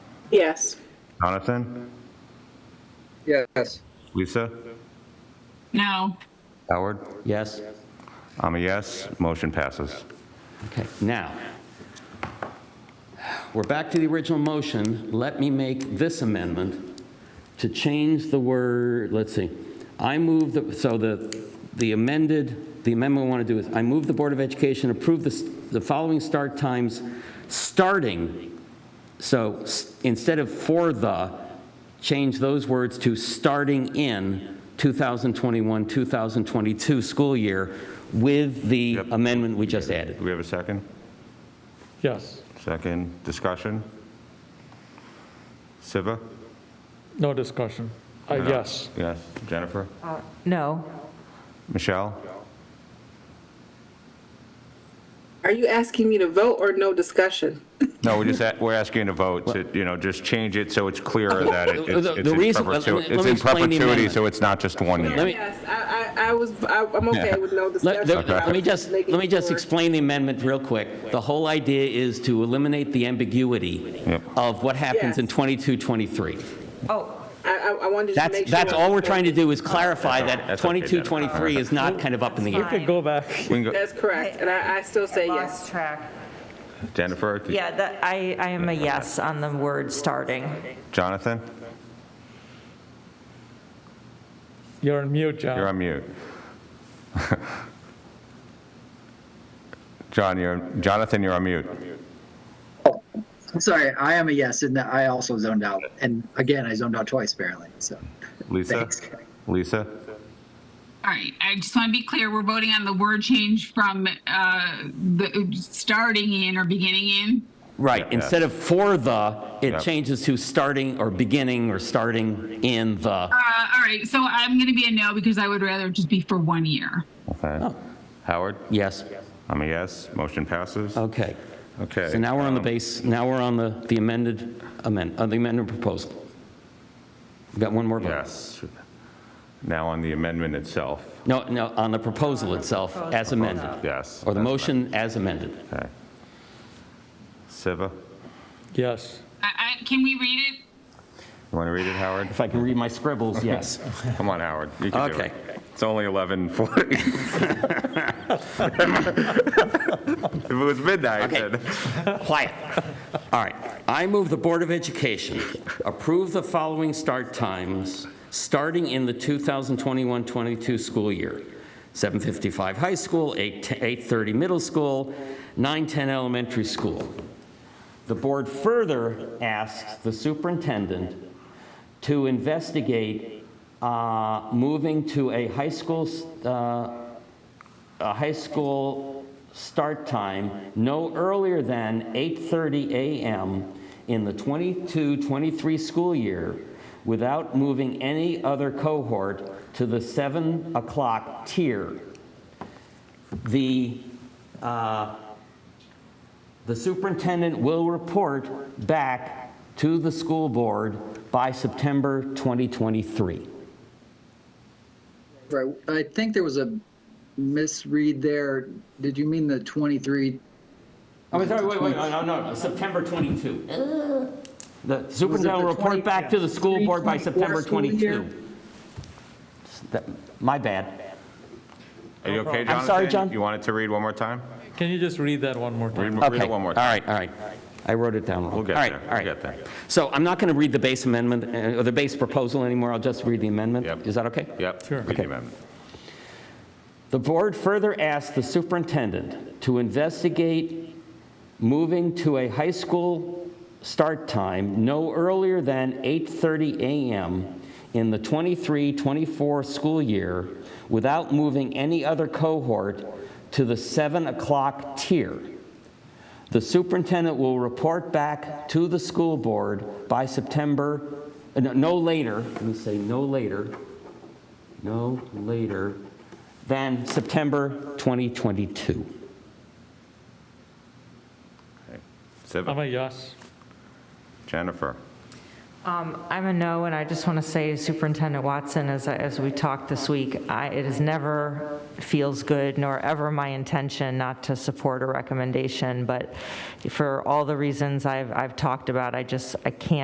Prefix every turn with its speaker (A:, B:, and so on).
A: Yes.
B: Jonathan?
C: Yes.
B: Lisa?
D: No.
B: Howard?
E: Yes?
B: I'm a yes. Motion passes.
E: Okay, now, we're back to the original motion. Let me make this amendment to change the word, let's see. I move, the so the the amended, the amendment we want to do is, I move the Board of Education approve the s- the following start times, starting, so s- instead of for the, change those words to starting in 2021, 2022 school year with the
B: Yep.
E: amendment we just added.
B: Do we have a second?
F: Yes.
B: Second, discussion? Siva?
F: No discussion. Uh,
B: No.
F: Yes.
B: Yes. Jennifer?
G: Uh, No.
B: Michelle?
A: Are you asking me to vote or no discussion?
B: No, we're just, at- we're asking to vote to, you know, just change it so it's clearer that it-
E: The-
B: it's
E: the-
B: it's
E: the
B: in
E: reason- let me-
B: perpetu-
E: let
B: it's
E: me
B: in
E: explain the
B: perpetuity,
E: amendment.
B: so it's not just one
E: Let
B: year.
E: me-
A: Yes, I, I, I was, I- I'm okay with no
E: Let,
A: discussion.
E: let-
A: but I
E: let me
A: was
E: just, let
A: making
E: me just
A: sure.
E: explain the amendment real quick. The whole idea is to eliminate the ambiguity
B: Yep.
E: of what happens in
A: Yes.
E: 22, 23.
G: Oh,
A: I, I- I wanted to make
E: That's,
A: sure.
E: that's all we're trying to do is clarify that
B: That's okay,
E: 22,
B: Jennifer.
E: 23 is not kind of up in the
G: That's
E: air.
G: fine.
F: Could go back.
B: We can go-
A: That's correct, and I, I still say yes.
G: lost track.
B: Jennifer?
G: Yeah, that, I, I am a yes on the word starting.
B: Jonathan?
F: You're on mute, John.
B: You're on mute. John, you're, Jonathan, you're on mute.
C: Sorry, I am a yes, and I also zoned out. And again, I zoned out twice apparently, so.
B: Lisa?
C: Thanks.
B: Lisa?
D: All right, I just want to be clear, we're voting on the word change from uh, the starting in or beginning in.
E: Right,
B: Yeah.
E: instead of for the,
B: Yeah.
E: it changes to starting or beginning or starting in the.
D: Uh, All right, so I'm going to be a no because I would rather just be for one year.
B: Okay.
E: Oh.
B: Howard?
E: Yes,
B: I'm a yes. Motion passes.
E: okay.
B: Okay.
E: Oh, So now we're on the
B: um,
E: base, now we're on the the amended, amend, uh, the amended proposal. We've got one more vote.
B: Yes. Now on the amendment itself.
E: No, no, on the proposal itself as amended.
B: Yes.
E: Or the
B: That's
E: motion as amended.
B: Okay. Siva,
F: Yes.
D: I, I, can we read it?
B: you want to read it, Howard?
E: If I can read my scribbles, yes.
B: Come on, Howard. You can do it.
E: Okay.
B: It's only 11:40. If it was midnight,
E: Okay.
B: then.
E: Quiet. All right. I move the Board of Education approve the following start times, starting in the 2021-22 school year. 7:55 high school, 8 8:30 middle school, 9:10 elementary school. The board further asks the superintendent to investigate uh, moving to a high school uh, a high school start time no earlier than 8:30 a.m. in the 22-23 school year without moving any other cohort to the 7 o'clock tier. The, uh, the superintendent will report back to the school board by September 2023.
C: Right, I think there was a misread there. Did you mean the 23?
E: Oh, sorry, wait, wait, no, no, no, September 22. The
C: Uh, the
E: superintendent will report
C: 20
E: back to the school board by
C: 23,
E: September
C: 24 school year?
E: 22. That- My bad.
B: Are you okay, Jonathan?
E: I'm sorry, John?
B: You wanted to read one more time?
F: Can you just read that one more
B: Read
F: time?
B: read
E: Okay,
B: it
E: all
B: one more
E: right,
B: time.
E: all right. I wrote it down wrong.
B: We'll get
E: All right,
B: there,
E: all
B: we'll
E: right.
B: get there.
E: So I'm not going to read the base amendment, uh, or the base proposal anymore, I'll just read the amendment.
B: Yep.
E: Is that okay?
B: Yep.
F: Sure.
B: read the
E: Okay.
B: amendment.
E: The board further asked the superintendent to investigate moving to a high school start time no earlier than 8:30 a.m. in the 23-24 school year without moving any other cohort to the 7 o'clock tier. The superintendent will report back to the school board by September, uh, no- no later, let me say no later, no later than September 2022.
F: I'm
B: Siva,
F: a yes.
B: Jennifer,
G: Um, I'm a no, and I just want to say Superintendent Watson, as, I- as we talked this week, I, it is never feels good nor ever my intention not to support a recommendation, but for all the reasons I've, I've talked about, I just, I can't